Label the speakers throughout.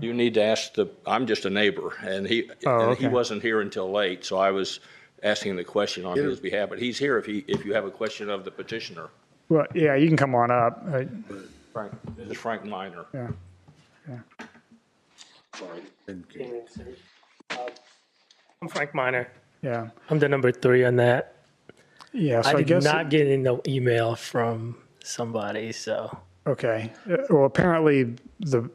Speaker 1: You need to ask the, I'm just a neighbor, and he,
Speaker 2: Oh,
Speaker 1: and he
Speaker 2: okay.
Speaker 1: wasn't here until late, so I was asking the question on his behalf, but he's here if he, if you have a question of the petitioner.
Speaker 2: Well, yeah, you can come on up. I-
Speaker 1: Frank, this is Frank Minor.
Speaker 2: Yeah.
Speaker 3: I'm Frank Miner.
Speaker 2: Yeah.
Speaker 3: I'm the number three on that.
Speaker 2: Yeah. So
Speaker 3: I
Speaker 2: I
Speaker 3: did
Speaker 2: guess,
Speaker 3: not get in the email from somebody, so
Speaker 2: okay. Uh, Well, apparently the,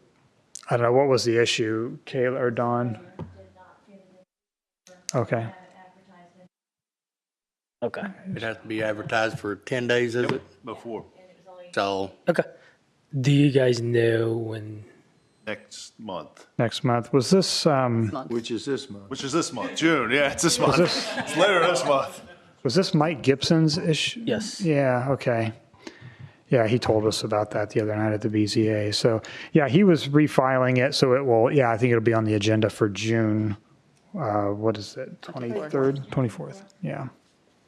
Speaker 2: I don't know, what was the issue? Kayla or Dawn? Okay.
Speaker 3: okay,
Speaker 4: It has to be advertised for 10 days, is it?
Speaker 5: before
Speaker 4: So
Speaker 3: okay. Do you guys know when?
Speaker 5: next month,
Speaker 2: Next month. Was this, um,
Speaker 6: Which is this month.
Speaker 5: which is this month, June. Yeah, it's this month.
Speaker 2: this-
Speaker 5: It's later this month.
Speaker 2: was this Mike Gibson's issue?
Speaker 3: Yes.
Speaker 2: Yeah, okay. Yeah, he told us about that the other night at the BZA. So, yeah, he was refiling it, so it will, yeah, I think it'll be on the agenda for June, uh, what is it, 23rd, 24th? Yeah,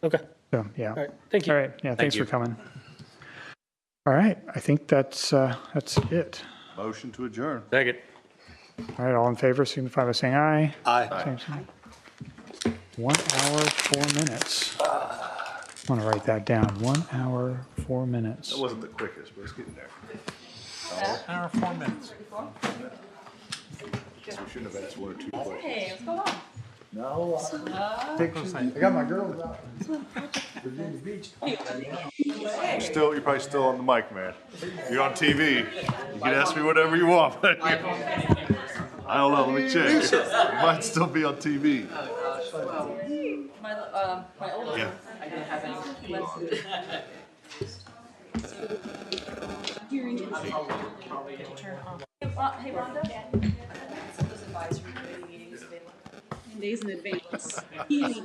Speaker 3: Okay.
Speaker 2: so, yeah.
Speaker 3: All right. Thank you.
Speaker 2: All right, yeah, thanks for coming. All right, I think that's, uh, that's it.
Speaker 5: Motion to adjourn.
Speaker 3: Second.
Speaker 2: All right, all in favor, signify by saying aye.
Speaker 4: I,
Speaker 2: Same sign. One hour, four minutes. I want to write that down, one hour, four minutes.
Speaker 5: That wasn't the quickest, but it's getting there.
Speaker 4: Hour, four minutes.
Speaker 5: We shouldn't have asked one or two questions.
Speaker 7: Hey, what's going on?
Speaker 5: You're still, you're probably still on the mic, man. You're on TV. You can ask me whatever you want. but- I don't know. Let me check. It might still be on TV.
Speaker 7: My, um, my oldest.
Speaker 5: Yeah.
Speaker 7: I don't have any. Hey, Ron- hey, Rhonda? Some of those advisory committee meetings, they look-
Speaker 8: days in advance. He,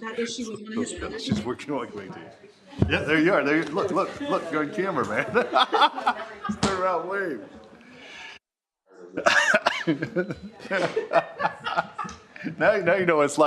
Speaker 8: that issue was one of his other
Speaker 5: She's working like way too. Yeah, there you are. There. You, look, look, look. You're on camera, man. Turn around, wave. now, now you know what it's like.